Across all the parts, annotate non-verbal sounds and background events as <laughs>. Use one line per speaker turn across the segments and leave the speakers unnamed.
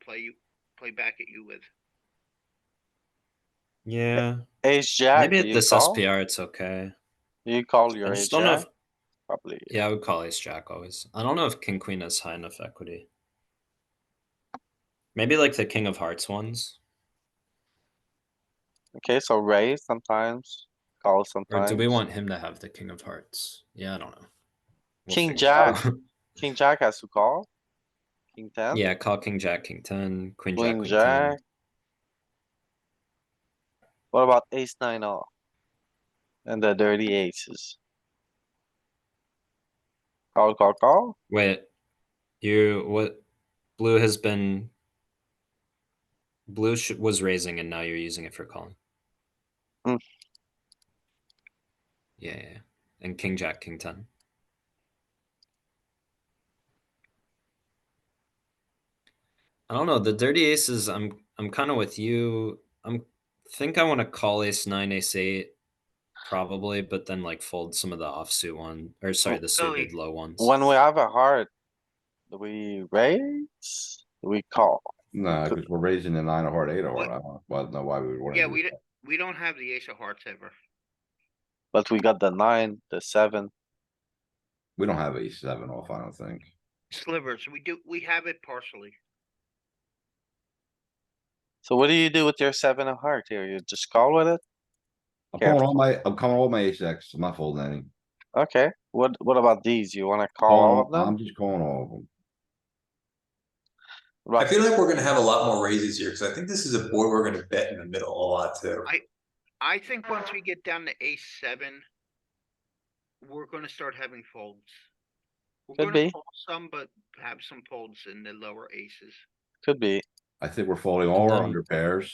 play you play back at you with.
Yeah,
Ace jack.
Maybe
do
at
you
this
call?
SPR it's okay.
Do You call
I
your ace
just don't know
jack?
if
Probably.
yeah, I would call ace jack always. I don't know if king queen has high enough equity. Maybe like the king of hearts ones.
Okay, so raise sometimes, call
Or
sometimes.
do we want him to have the king of hearts? Yeah, I don't know. We'll
King
figure it out.
King jack has to call? King
<laughs>
ten?
Yeah, call king jack, king ten, queen jack,
Queen
queen
jack?
ten.
What about ace nine off? And the dirty aces? Call, call, call?
Wait, you what? Blue has been. Blue sh- was raising, and now you're using it for calling.
Hmm.
Yeah, yeah, yeah. and King Jack, King Ten. I don't know the dirty aces. I'm I'm kind of with you. I'm think I want to call Ace Nine, Ace Eight, probably, but then like fold some of the offsuit one or sorry, the
Billy,
suited low ones.
When we have a heart, do we raise? Do we call?
No, because we're raising the nine of heart, eight of heart.
What-
I don't well, know why we would want to.
Yeah, we don't we don't have the ace of hearts ever.
But we got the nine, the seven.
We don't have a seven off, I don't think.
Slivers, we do we have it partially.
So what do you do with your seven of heart here? You just call with it?
I'm
Yeah.
calling all my, I'm calling all my ace X, I'm not folding any.
Okay, what, what about these? You wanna call all of
Calling all-
them?
I'm just calling all of them.
I
Right,
feel like we're gonna have a lot more raises here, because I think this is a board we're gonna bet in the middle a lot too.
I think once we get down to ace seven, we're gonna start having folds. We're
Could
gonna
be.
fold some, but have some folds in the lower aces.
could be.
I think we're folding all our
Done.
under pairs.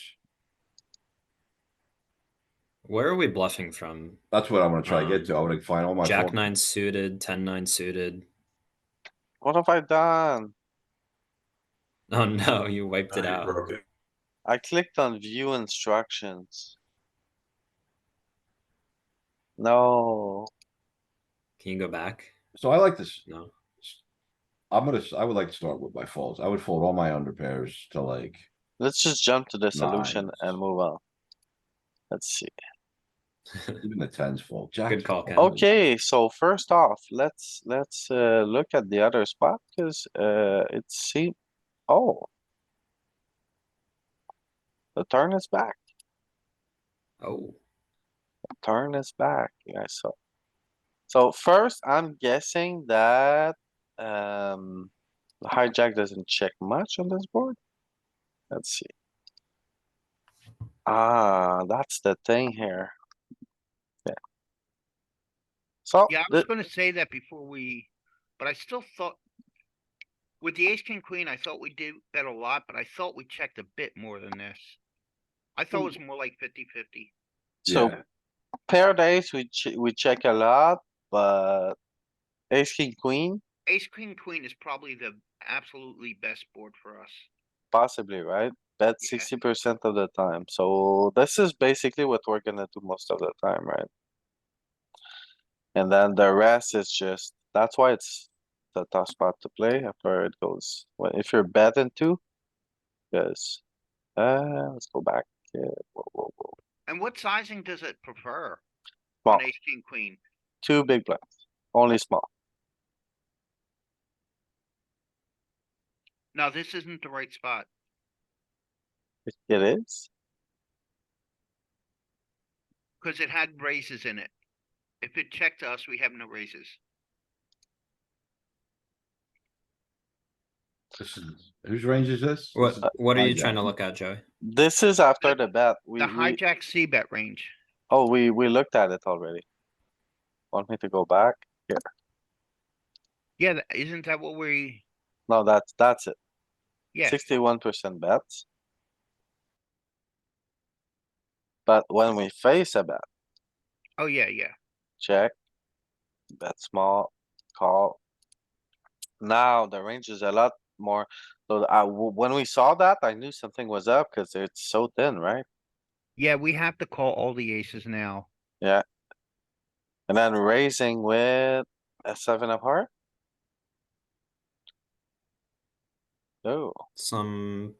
Where are we bluffing from?
That's what I'm gonna try to
Um,
get to. I would find all my.
Jack
fold-
nine suited, ten nine suited. <laughs>
What have I done?
Oh no, you wiped it
Uh,
out.
broken.
I clicked on view instructions. No,
Can you go back?
So I like this,
No.
I'm gonna, s- I would like to start with my folds. I would fold all my under pairs to like,
let's just jump to the solution
Nice.
and move on. Let's see.
even the tens fold. Jack.
Good call, Ken.
fold.
Okay, so first off, let's, let's, uh, look at the other spot, cause, uh, it seem, oh. The turn is back,
Oh,
turn is back, yeah, so. So first, I'm guessing that, um, the hijack doesn't check much on this board. Let's see. Ah, that's the thing here. Yeah. So.
Yeah, I
Oh, the-
was gonna say that before we, but I still thought. With the ace, king, queen, I thought we did bet a lot, but I thought we checked a bit more than this. I thought it was more like fifty fifty.
So
Yeah.
pair days, we che- we check a lot, but ace, king, queen,
Ace, king, queen is probably the absolutely best board for us.
possibly, right? Bet
Yeah.
sixty percent of the time, so this is basically what we're gonna do most of the time, right? And then the rest is just, that's why it's the tough spot to play after it goes, well, if you're betting two. Cause, uh, let's go back, uh, whoa, whoa, whoa,
And what sizing does it prefer?
Well,
On ace, king, queen,
two big blinds, only small,
no, this isn't the right spot.
It- it is,
Cause it had raises in it. If it checked to us, we have no raises.
This is- Whose range is this?
what?
This is
What are you
hijack.
trying to look at, Joey?
this is after the bet, we,
The
we,
hijack C bet range.
Oh, we, we looked at it already. Want me to go back?
Yeah, tha- isn't that what we,
No, that's, that's it.
yeah,
Sixty-one percent bets. But when we face a bet,
oh, yeah, yeah.
check. Bet small, call. Now the range is a lot more, so I, w- when we saw that, I knew something was up cuz it's so thin, right?
Yeah, we have to call all the aces now.
And then raising with a seven of heart. Oh.
Some